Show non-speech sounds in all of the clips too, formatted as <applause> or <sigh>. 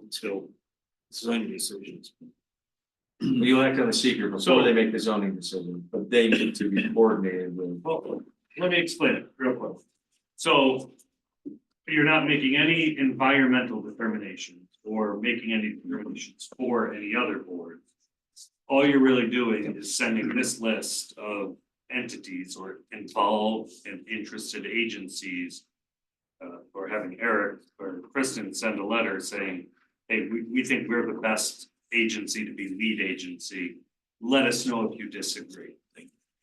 until zoning decisions. You'll act on the secret before they make the zoning decision, but they need to be coordinated with. Well, let me explain it real quick. So you're not making any environmental determinations or making any determinations for any other board. All you're really doing is sending this list of entities or involved and interested agencies. Uh, or having Eric or Kristen send a letter saying, hey, we, we think we're the best agency to be lead agency. Let us know if you disagree.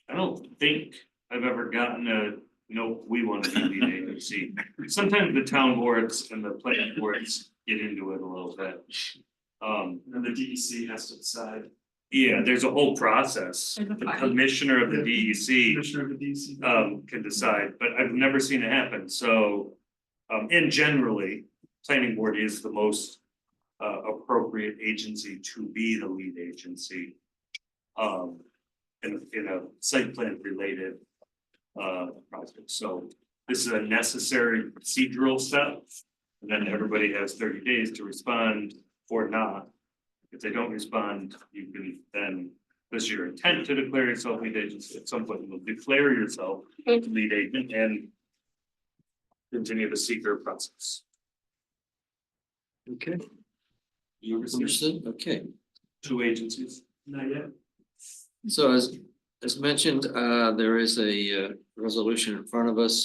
I don't think I've ever gotten a, nope, we want to be <laughs> the agency. Sometimes the town boards and the planning boards get into it a little bit. Um, And the DEC has to decide, yeah, there's a whole process. There's a The fight. commissioner of the E DEC commissioner of the DEC. um can decide, but I've never seen it happen, so. Um, and generally, planning board is the most uh appropriate agency to be the lead agency. Um, in in a site plan related uh project, so this is a necessary procedural step. And then everybody has thirty days to respond or not. If they don't respond, you can then, this is your intent to declare yourself lead agency, at some point you'll declare yourself lead agent and. Continue the seeker process. Okay. You understood? Okay. Two agencies. Not yet. So as, as mentioned, uh, there is a, uh, resolution in front of us.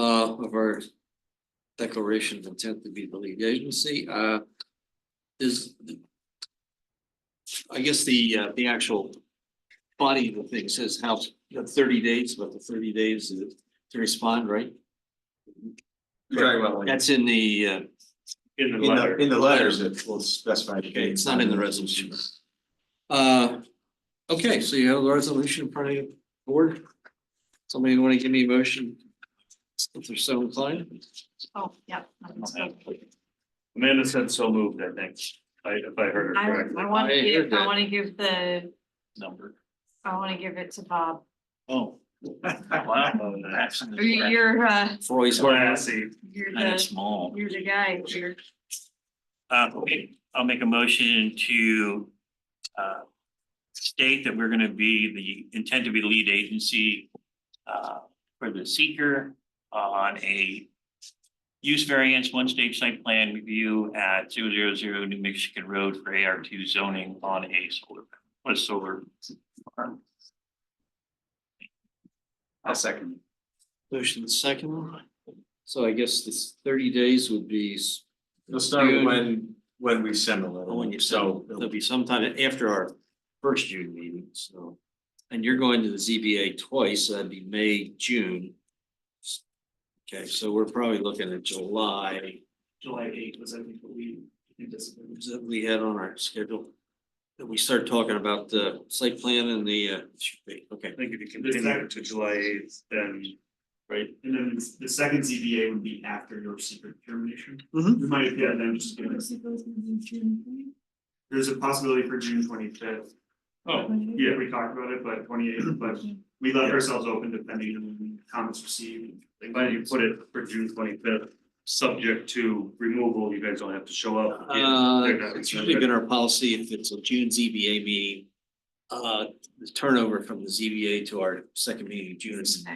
Uh, of our declaration of intent to be the lead agency, uh, is. I guess the, uh, the actual body of the thing says how, the thirty days, but the thirty days is to respond, right? That's in the, uh, In the In the, letter. in the letters, it will specify. the Okay, it's not in the resolution. Uh, okay, so you have the resolution in front of the board. Somebody wanna give me a motion? If they're so inclined, Oh, yep. I can see. Amanda said so moved, I think, I if I heard her I, correctly. I want I to heard give, I that. want to give the, number. I want to give it to Bob. Oh. You're, you're, uh, Roy's. Classy. you're Kind of the, small. you're the guy here. Uh, okay, I'll make a motion to uh state that we're gonna be the intent to be the lead agency uh for the seeker on a use variance one stage site plan review at zero zero zero New Mexican Road for AR two zoning on a solar, on a solar farm. I'll second. Motion second. So I guess this thirty days would be, s- You'll start June. Oh, when, when we send the letter. when you So so, it'll be sometime after our first June meeting, so. And you're going to the ZBA twice, so that'd be May, June. Okay, so we're probably looking at July. July eighth was, I think, what we anticipated. that we had on our schedule. That we start talking about the site plan and the, uh, should be, okay, I think if you continue it to July eighth, then, right, And then the second ZBA would be after your secret determination. Mhm. We might, yeah, then just give us, there's a possibility for June twenty fifth. oh, Yeah, we talked about it, but twenty eighth, but we left ourselves open depending on comments received. why do you put it for June twenty fifth? Subject to removal, you guys don't have to show up. uh, They're not- it's usually been our policy if it's a June ZBA meeting. Uh, the turnover from the ZBA to our second meeting in June is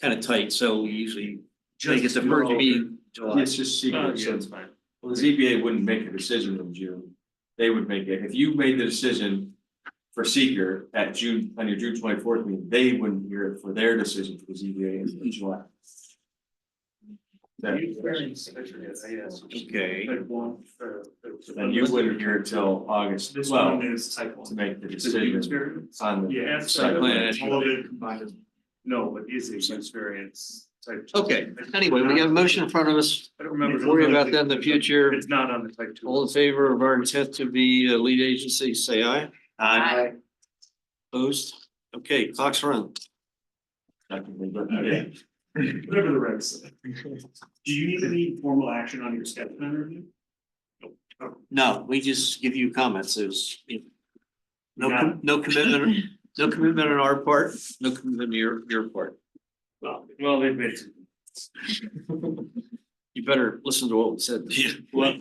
kind of tight, so we usually make it the first meeting in July. it's just Oh, Uh, Uh, secret, yeah, so it's fine. well, the ZBA wouldn't make a decision in June. They would make it, if you made the decision for seeker at June, on your June twenty fourth meeting, they wouldn't hear it for their decision for the ZBA in July. Then Okay. Like one for- so then you wouldn't hear it till August This twelve one is type to one. make the Is it you decision experience? on the. Yeah. it's Site type plan. one. All of it combined. No, but is a use variance type. two. Okay, anyway, we have a motion in front of us, I don't remember. Worry about that in the future. It's not on the type two. all in favor of our intent to be a lead agency, say aye. Aye. Opposed? Okay, clock's run. Technically, but yeah. Whatever the regs say. Do you need any formal action on your step plan review? No, we just give you comments, there's. you know, No, Got com- no commitment, no commitment on our part, no commitment on your, your part. Well, well, they've made, You better listen to what we said. well,